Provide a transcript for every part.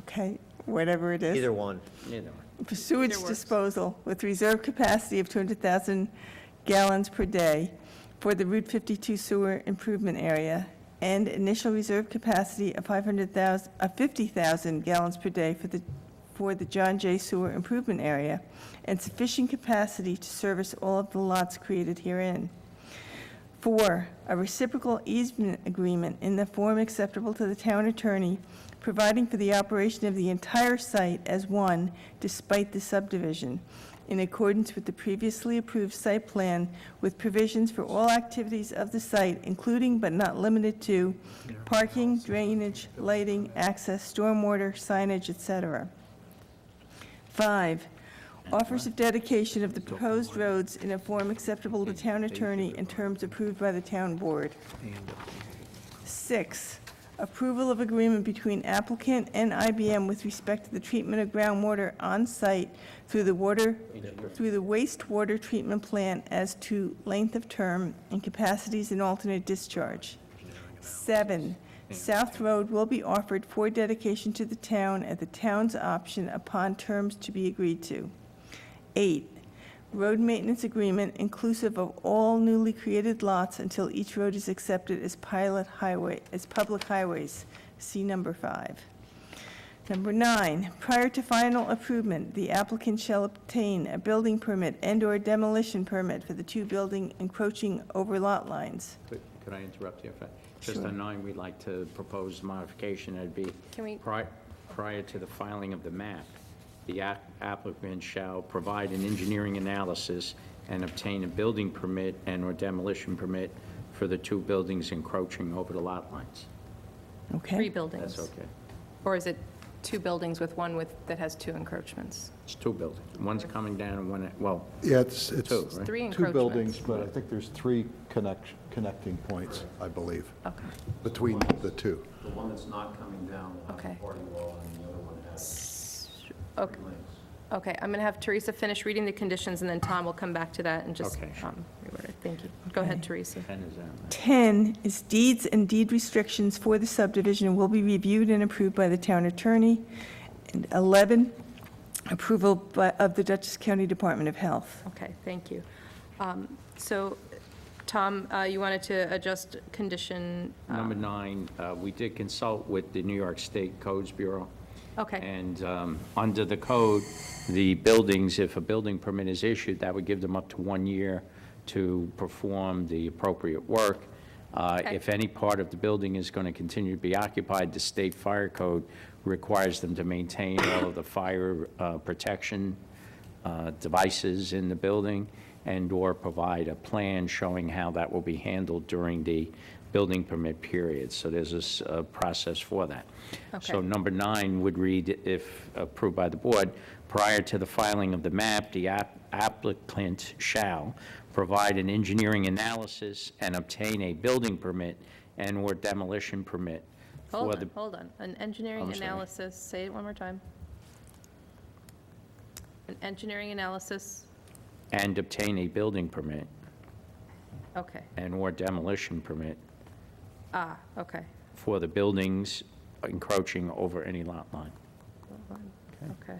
okay, whatever it is. Either one. Neither one. For sewage disposal with reserve capacity of 200,000 gallons per day for the Route 52 sewer improvement area and initial reserve capacity of 500,000, of 50,000 gallons per day for the, for the John J. Sewer Improvement Area and sufficient capacity to service all of the lots created herein. Four, a reciprocal easement agreement in the form acceptable to the town attorney, providing for the operation of the entire site as one despite the subdivision, in accordance with the previously approved site plan with provisions for all activities of the site, including but not limited to parking, drainage, lighting, access, stormwater, signage, et cetera. Five, offers of dedication of the proposed roads in a form acceptable to town attorney in terms approved by the town board. Six, approval of agreement between applicant and IBM with respect to the treatment of groundwater on-site through the water, through the wastewater treatment plant as to length of term and capacities and alternate discharge. Seven, South Road will be offered for dedication to the town at the town's option upon terms to be agreed to. Eight, road maintenance agreement inclusive of all newly created lots until each road is accepted as pilot highway, as public highways, see number five. Number nine, prior to final approval, the applicant shall obtain a building permit and/or demolition permit for the two building encroaching over lot lines. Could could I interrupt you? if I- Just Sure. on nine, we'd like to propose modification, it'd be. Can we- pri- Prior to the filing of the map, the app- applicant shall provide an engineering analysis and obtain a building permit and/or demolition permit for the two buildings encroaching over the lot lines. Three Okay? buildings? That's okay. Or is it two buildings with one with, that has two encroachments? It's two buildings. One's coming down and one, well, Yeah, it's, it's Two, right? Three two encroachments? buildings, but I think there's three connection, connecting points, I believe, Okay, between the two. The one that's not coming down will have Okay. a party wall, and the other one has okay, links. okay. I'm going to have Teresa finish reading the conditions, and then Tom will come back to that and just Okay, sure. um, reword it. Thank you. Go ahead, Okay. Teresa. 10 is out. 10 is deeds and deed restrictions for the subdivision will be reviewed and approved by the town attorney. And 11, approval by- of the Dutchess County Department of Health. Okay, thank you. Um, So, Tom, uh, you wanted to adjust condition, uh, Number nine, uh, we did consult with the New York State Codes Bureau. Okay. And um, under the code, the buildings, if a building permit is issued, that would give them up to one year to perform the appropriate work. Uh, Okay. If any part of the building is going to continue to be occupied, the state fire code requires them to maintain all of the fire uh, protection uh, devices in the building and/or provide a plan showing how that will be handled during the building permit period. So there's this uh, process for that. So Okay. number nine would read, if approved by the board, prior to the filing of the map, the app- applicant shall provide an engineering analysis and obtain a building permit and/or demolition permit for hold the on, hold on. An engineering I'm sorry. analysis, say it one more time. An engineering analysis, and obtain a building permit okay, and/or demolition permit ah, okay. for the buildings encroaching over any lot line. Okay.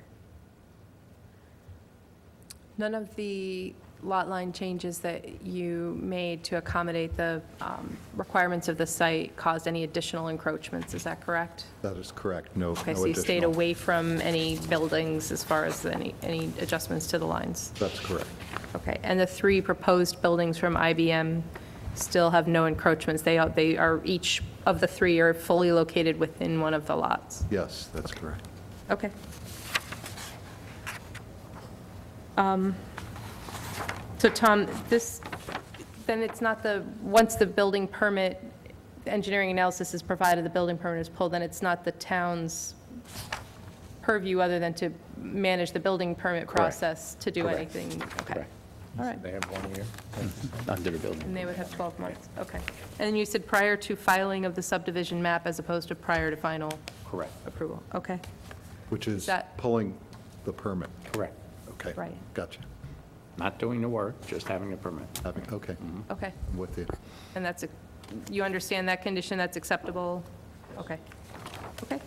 None of the lot line changes that you made to accommodate the um, requirements of the site caused any additional encroachments, is that correct? That is correct, no, no Okay, so you stayed additional- away from any buildings as far as any, any adjustments to the lines? That's correct. Okay, and the three proposed buildings from IBM still have no encroachments? They are, they are, each of the three are fully located within one of the lots? Yes, that's correct. Okay. Um, Um, So Tom, this, then it's not the, once the building permit, the engineering analysis is provided, the building permit is pulled, then it's not the town's purview other than to manage the building permit process to do Correct. anything? Okay. Correct. All right. They have one year under the building. And they would have 12 months, okay. And you said prior to filing of the subdivision map as opposed to prior to final Correct, approval? Okay, Which is That- pulling the permit. correct. Okay. Right. Gotcha. Not doing the work, just having a permit. Having- Okay, Mm-hmm. okay. I'm with you. And that's, a- you understand that condition, that's acceptable? Okay, okay.